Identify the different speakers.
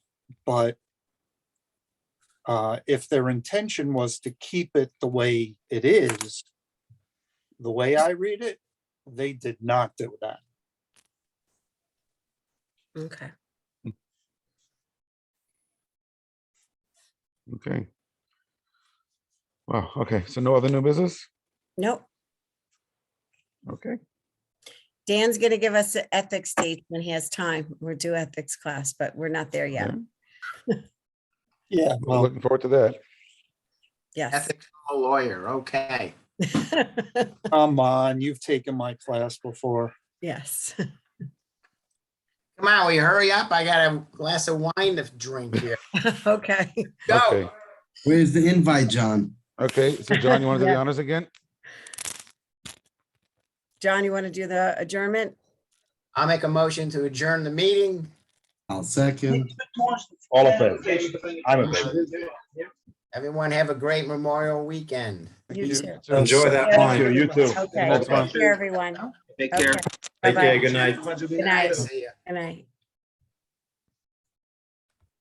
Speaker 1: but uh, if their intention was to keep it the way it is, the way I read it, they did not do that.
Speaker 2: Okay.
Speaker 3: Okay. Wow, okay, so no other new business?
Speaker 2: Nope.
Speaker 3: Okay,
Speaker 2: Dan's gonna give us the ethics date when he has time. We're due ethics class, but we're not there yet.
Speaker 3: Okay.
Speaker 1: Yeah.
Speaker 3: we're
Speaker 1: Well,
Speaker 3: looking forward to that.
Speaker 2: Yes.
Speaker 4: Ethical lawyer, okay.
Speaker 1: come on, you've taken my class before.
Speaker 2: Yes.
Speaker 4: Come on, will you hurry up? I got a glass of wine to drink here.
Speaker 2: Okay.
Speaker 3: Okay,
Speaker 4: Go.
Speaker 5: Where's the invite, John?
Speaker 3: okay, so John, you want to do the
Speaker 2: Yeah.
Speaker 3: honors again?
Speaker 2: John, you want to do the adjournment?
Speaker 4: I'll make a motion to adjourn the meeting.
Speaker 5: I'll second.
Speaker 6: All in favor? I'm in favor.
Speaker 4: Everyone have a great Memorial Weekend.
Speaker 2: You too.
Speaker 1: Enjoy
Speaker 2: that
Speaker 6: Thank
Speaker 2: wine.
Speaker 6: you, you too.
Speaker 2: Okay.
Speaker 3: Next one.
Speaker 2: Take care, everyone.
Speaker 7: Take
Speaker 2: Okay.
Speaker 7: care.
Speaker 2: Bye-bye.
Speaker 6: good night.
Speaker 2: Good night.
Speaker 4: See ya.
Speaker 2: Good night.